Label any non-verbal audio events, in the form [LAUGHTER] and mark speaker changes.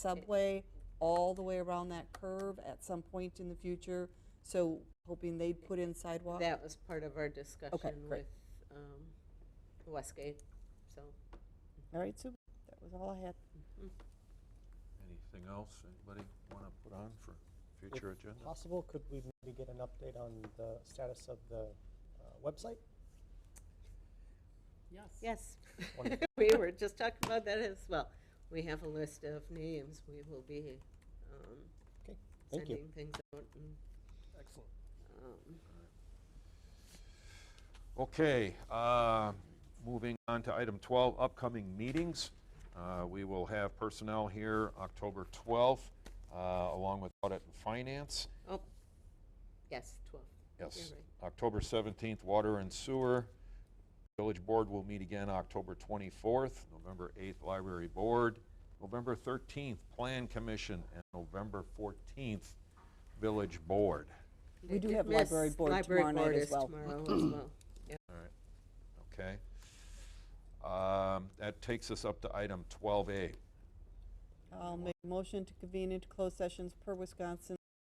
Speaker 1: subway all the way around that curve at some point in the future. So hoping they'd put in sidewalk.
Speaker 2: That was part of our discussion
Speaker 1: great.
Speaker 2: with um, Westgate, so.
Speaker 1: All right, super. That was all I had.
Speaker 3: Anything else anybody want to put on for future agenda?
Speaker 4: Possible, could we maybe get an update on the status of the uh, website?
Speaker 2: Yes.
Speaker 4: Wonderful.
Speaker 2: [LAUGHS] We were just talking about that as well. We have a list of names. We will be um,
Speaker 4: Okay, thank you.
Speaker 2: sending things out and
Speaker 4: Excellent.
Speaker 2: um,
Speaker 3: Okay, uh, moving on to item 12, upcoming meetings. Uh, We will have personnel here October 12th, uh, along with audit and finance.
Speaker 2: Oh, yes, 12.
Speaker 3: Yes,
Speaker 2: You're right.
Speaker 3: October 17th, water and sewer. Village Board will meet again October 24th, November 8th, Library Board, November 13th, Plan Commission, and November 14th, Village Board.
Speaker 1: We
Speaker 2: I
Speaker 1: do
Speaker 2: did
Speaker 1: have library
Speaker 2: miss-
Speaker 1: board
Speaker 2: library
Speaker 1: tomorrow night
Speaker 2: board
Speaker 1: as
Speaker 2: is
Speaker 1: well.
Speaker 2: tomorrow as well. Yeah.
Speaker 3: Okay. Um, That takes us up to item 12A.
Speaker 1: I'll make a motion to convene into closed sessions per Wisconsin